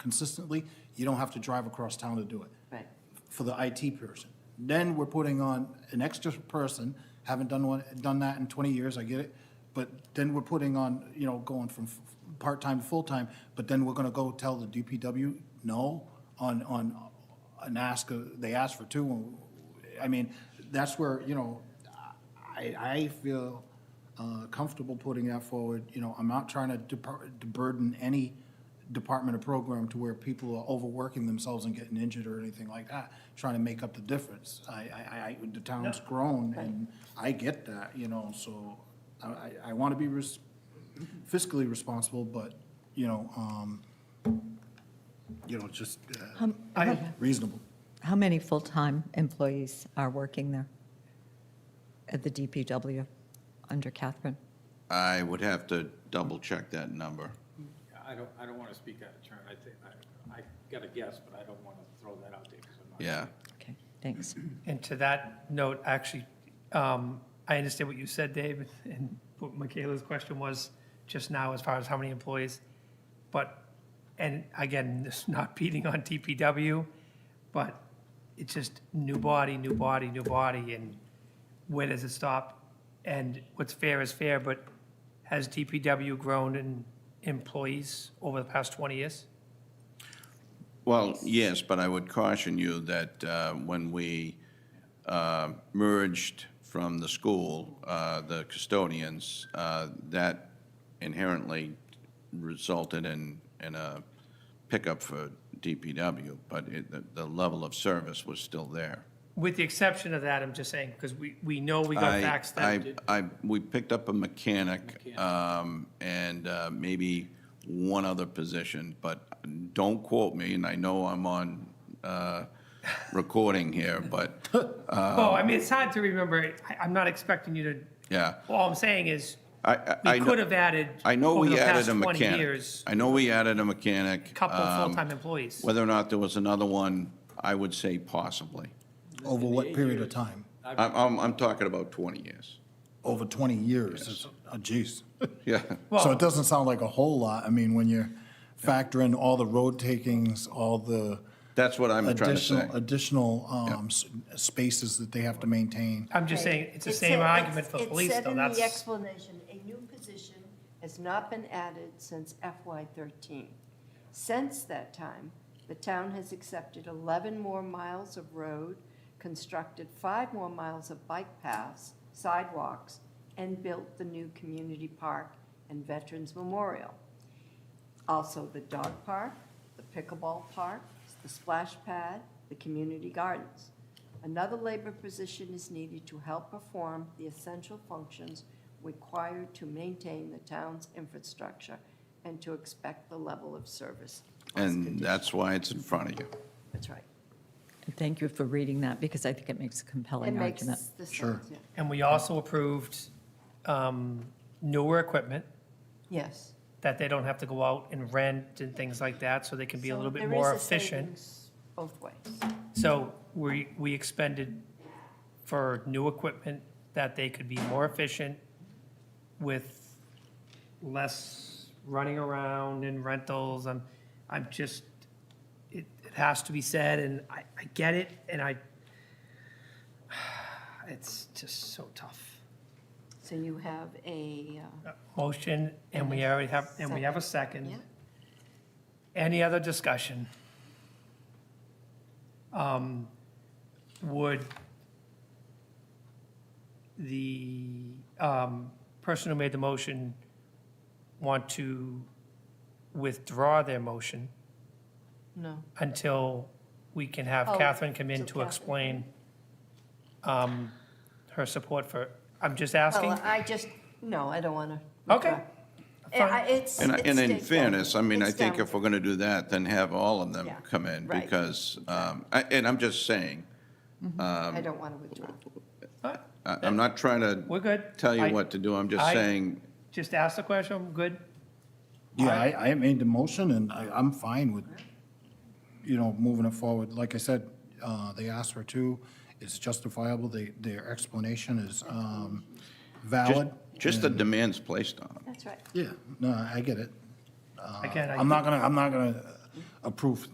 consistently, you don't have to drive across town to do it Right. for the IT person. Then we're putting on an extra person, haven't done one, done that in twenty years, I get it. But then we're putting on, you know, going from f- part-time to full-time, but then we're gonna go tell the DPW no on, on, an ask, uh, they asked for two. and- I mean, that's where, you know, I, I feel uh, comfortable putting that forward. You know, I'm not trying to depar- to burden any department or program to where people are overworking themselves and getting injured or anything like that, trying to make up the difference. I, I, I, the town's grown, and I get that, you know, so I, I, I want to be res- fiscally responsible, but, you know, um, you know, just uh, reasonable. How many full-time employees are working there at the DPW under Catherine? I would have to double check that number. I don't, I don't want to speak out of turn. I think, I, I got a guess, but I don't want to throw that out there because I'm not. Yeah. Okay, thanks. And to that note, actually, um, I understand what you said, Dave, and what Michaela's question was just now as far as how many employees. But, and again, this is not beating on DPW, but it's just new body, new body, new body, and where does it stop? And what's fair is fair, but has DPW grown in employees over the past 20 years? Well, yes, but I would caution you that uh, when we uh, merged from the school, uh, the custodians, uh, that inherently resulted in, in a pickup for DPW, but it, the, the level of service was still there. With the exception of that, I'm just saying, because we, we know we got I- backstabbed. I, I, we picked up a mechanic, um, and, uh, maybe one other position, but don't quote me, and I know I'm on, uh, recording here, but, Um, Well, I mean, it's hard to remember. I, I'm not expecting you to, yeah. all I'm saying is, I, I. I we know- could have added. I know over we the added past a 20 mechanic. years, I know we added a mechanic. Couple um, full-time employees. Whether or not there was another one, I would say possibly. Over what period of time? I'm, I'm, I'm talking about twenty years. Over twenty years, is- oh geez. Yeah, So it Well- doesn't sound like a whole lot. I mean, when you factor in all the road takings, all the that's what I'm trying to say. additional, additional um, s- spaces that they have to maintain. I'm just saying, it's the It same said- argument it's- for police, It said though. in the That's, explanation, a new position has not been added since FY '13. Since that time, the town has accepted 11 more miles of road, constructed five more miles of bike paths, sidewalks, and built the new community park and Veterans Memorial. Also, the dog park, the pickleball park, the splash pad, the community gardens. Another labor position is needed to help perform the essential functions required to maintain the town's infrastructure and to expect the level of service. as And conditioned. that's why it's in front of you. That's right. And Thank you for reading that, because I think it makes a It compelling makes argument. the Sure. sense, yeah. and we also approved, um, newer equipment Yes. that they don't have to go out and rent and things like that, so they can be a So little bit there more is a efficient. savings Both ways. So we, we expended for new equipment that they could be more efficient with less running around and rentals. I'm, I'm just, it, it has to be said and I, I get it and I, it's just so tough. So you have a, uh, Motion and we already have, and we have a yeah, second. Any other discussion? Um, Would the um, person who made the motion want to withdraw their motion no. until we can have Oh, Catherine come in till to Catherine. explain um, her support for, I'm just asking? Well, Oh, uh, I just, no, I don't want to. Okay. Fine. It's. And, I- it's and in down- fairness, I mean, I it's think down. if we're going to do that, then have all of them Yeah, come in, right. because, um, I- and I'm just saying, um, I don't want to withdraw. I- I'm not trying We're to good? tell you I- what to do, I'm just I- saying, Just ask the question, I'm good? Yeah, I, I made the motion and I, I'm fine with, you know, moving it forward. Like I said, uh, they asked for two. It's justifiable. They, their explanation is, um, just, valid. just the demands placed on them. That's right. Yeah, no, I get it. Again, I I'm not gonna, I'm not gonna approve